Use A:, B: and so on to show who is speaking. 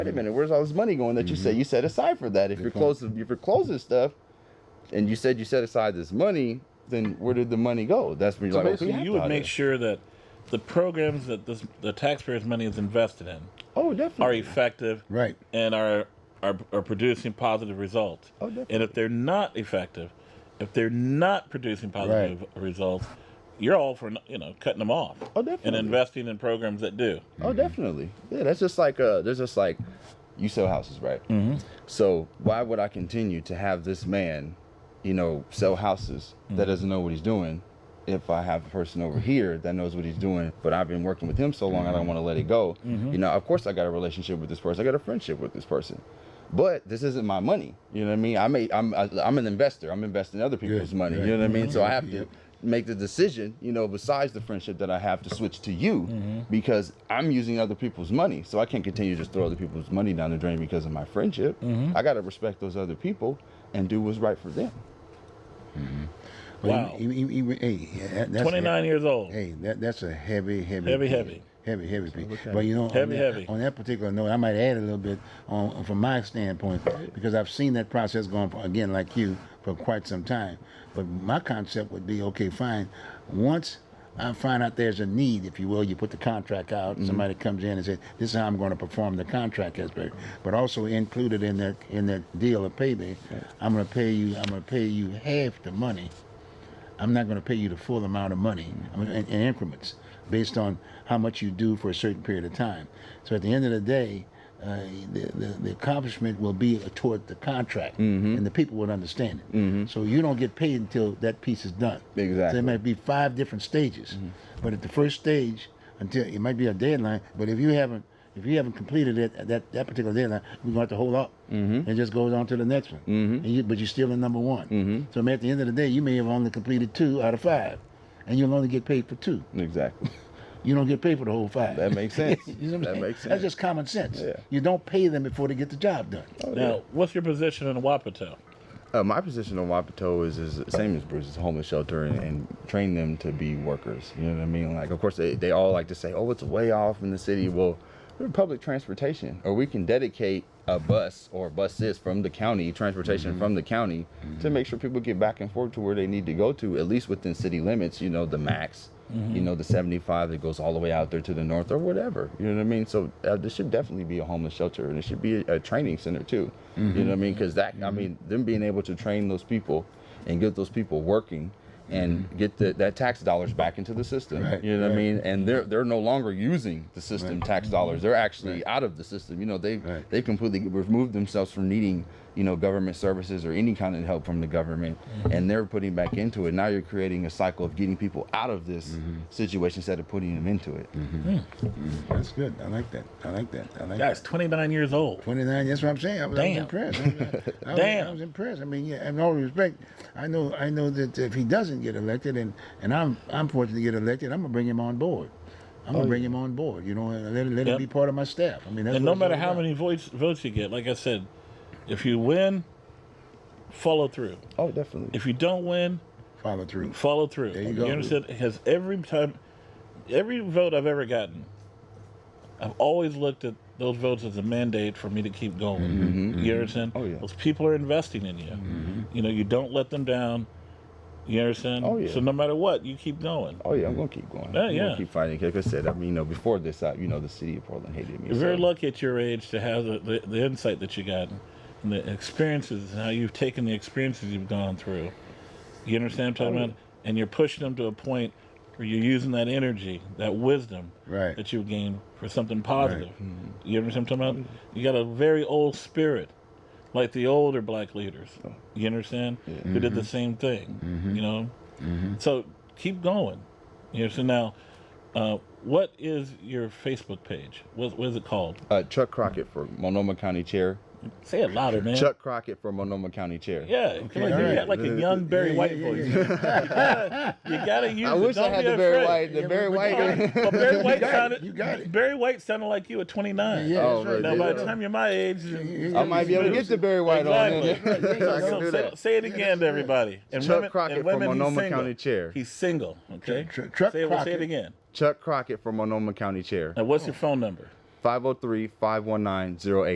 A: wait a minute, where's all this money going that you said you set aside for that? If you're
B: point.
A: closing, if you're closing stuff, and you said you set aside this money, then where did the money go? That's when you're
B: So
A: like, okay,
B: basically,
A: we
C: you
A: have
C: would
A: thought
C: make
A: of
C: sure that the programs that this, the taxpayers' money is invested in
A: it. Oh,
C: are
A: definitely.
C: effective
B: Right.
C: and are, are are producing positive results.
A: Oh, definitely.
C: And if they're not effective, if they're not producing positive results, you're all for you know cutting them off.
A: Oh, definitely.
C: And investing in programs that do.
A: Oh, definitely. Yeah, that's just like uh, there's just like you sell houses, right? Mm-hmm. So why would I continue to have this man, you know, sell houses that doesn't know what he's doing? If I have a person over here that knows what he's doing, but I've been working with him so long, I don't want to let it go. You know, of course, I got a relationship with this person. I got a friendship with this person, but this isn't my money. You know what I mean? I may, I'm, I, I'm an investor. I'm investing other people's money.
B: right.
A: You know what I mean? So I have to
B: Yep.
A: make the decision, you know, besides the friendship that I have to switch to you because I'm using other people's money. So I can't continue to just throw other people's money down the drain because of my friendship. I got to respect those other people and do what's right for them.
B: But
C: Wow.
B: Even, even, even, hey, yeah, that- that's
C: 29 years old.
B: Hey, that, that's a heavy, heavy,
C: Heavy,
B: piece.
C: heavy.
B: heavy, heavy. piece. But you know, on
C: Heavy,
B: that-
C: heavy.
B: On that particular note, I might add a little bit on from my standpoint because I've seen that process going for, again, like you, for quite some time. But my concept would be okay, fine. Once I find out there's a need, if you will, you put the contract out.
C: Mm-hmm.
B: Somebody comes in and says, "This is how I'm going to perform the contract aspect," but also included in that in that deal of payment, I'm going to pay you. I'm going to pay you half the money. I'm not going to pay you the full amount of money I'm in, in increments based on how much you do for a certain period of time. So at the end of the day, uh, the, the, the accomplishment will be toward the contract, and the people would understand it. So you don't get paid until that piece is done. So
A: Exactly.
B: there might be five different stages, but at the first stage, until it might be a deadline. But if you haven't if you haven't completed it at that, that particular deadline, we're going to have to hold up. Mm-hmm. It just goes on to the next one. Mm-hmm. And you, but you're still in number one. Mm-hmm. So at the end of the day, you may have only completed two out of five, and you'll only get paid for two.
A: Exactly.
B: You don't get paid for the whole five.
A: That makes sense.
B: You know what I'm
A: that
B: saying?
A: makes sense.
B: That's just common sense.
A: Yeah.
B: You don't pay them before they get the job done.
C: Now, what's your position in Wapato?
A: Uh, my position on Wapato is, is the same as Bruce's homeless shelter and, and train them to be workers. You know what I mean? Like, of course, they, they all like to say, oh, it's way off in the city. Well, we're public transportation, or we can dedicate a bus or buses from the county, transportation from the county, to make sure people get back and forth to where they need to go to, at least within city limits, you know, the max,
B: Mm-hmm.
A: you know, the 75 that goes all the way out there to the north or whatever. You know what I mean? So uh, this should definitely be a homeless shelter and it should be a, a training center too. You know what I
B: Mm-hmm.
A: mean? Because that, I mean, them being able to train those people and get those people working and get the, that tax dollars back into the system.
B: Mm-hmm. Right,
A: you know what I
B: right.
A: mean? And they're they're no longer using the system tax dollars. They're actually out of the system. You know, they
B: Right.
A: they've completely removed themselves from needing, you know, government services or any kind of help from the government. And they're putting back into it. Now you're creating a cycle of getting people out of this situation instead of putting them into it.
B: That's good. I like that. I like that. I like that.
C: Guys, 29 years old.
B: 29. That's what I'm saying. I was,
C: Damn.
B: I was impressed. I was, I was-
C: Damn.
B: I was impressed. I mean, yeah. In all respect, I know. I know that if he doesn't get elected, and and I'm I'm fortunate to get elected, I'm gonna bring him on board. I'm gonna bring him on board. You know, and let, it- let
C: Oh, Yep.
B: him be part of my staff. I mean, that's
C: And
B: what
C: no
B: it's
C: matter
B: all
C: how
B: about.
C: many votes votes you get, like I said, if you win, follow through.
A: Oh, definitely.
C: If you don't win,
B: follow through.
C: follow through.
B: There you go.
C: understand? Has every time, every vote I've ever gotten, I've always looked at those votes as a mandate for me to keep going. You understand?
A: Oh, yeah. Mm-hmm.
C: Those people are investing in you. You know, you don't let them down. You understand?
A: Oh, yeah.
C: So no matter what, you keep going.
A: Oh yeah, I'm gonna keep going.
C: Yeah,
A: I'm
C: yeah.
A: gonna keep fighting. 'Cause Like I said, I mean, you know, before this, I, you know, the city of Portland hated me.
C: You're very
A: so-
C: lucky at your age to have the, the, the insight that you got and the experiences and how you've taken the experiences you've gone through. You understand what I'm talking about? And you're pushing them to a point where you're using that energy, that wisdom
B: Right.
C: that you gained for something positive. You understand what I'm talking about? You got a very old spirit, like the older black leaders. You understand? Who did the same thing. You know? So keep going. You understand? Now, uh, what is your Facebook page? What, what is it called?
A: Uh, Chuck Crockett for Monoma County Chair.
C: Say it louder, man.
A: Chuck Crockett for Monoma County Chair.
C: Yeah, come on, you
B: alright.
C: got like
A: uh,
C: a young Barry
B: Yeah,
C: White
B: yeah,
C: voice.
B: yeah,
C: you gotta use.
A: I
C: it.
A: wish I
C: Don't
A: had
C: be
A: the Barry
C: afraid.
A: White. The
B: Yeah,
A: Barry
B: we- we
A: White.
C: Well, Barry White
B: got it.
C: sounded.
B: You got it.
C: Barry White sounded like you at 29.
B: Yeah,
A: Oh, man,
B: that's
C: Now
B: right.
C: by
A: dude.
C: the time you're my age,
A: I might be able to get the Barry White
C: Exactly.
A: on. then. I can
C: So
A: do
C: say,
A: that.
C: say it again to everybody. And
A: Chuck
C: women,
A: Crockett
C: and women,
A: from
C: he's
A: Monoma
C: single.
A: County Chair.
C: He's single. Okay.
B: Tr- tr- Chuck
C: say, it, say
B: Crockett.
C: it again.
A: Chuck Crockett for Monoma County Chair.
C: Now, what's your phone number?
A: 503 519 08.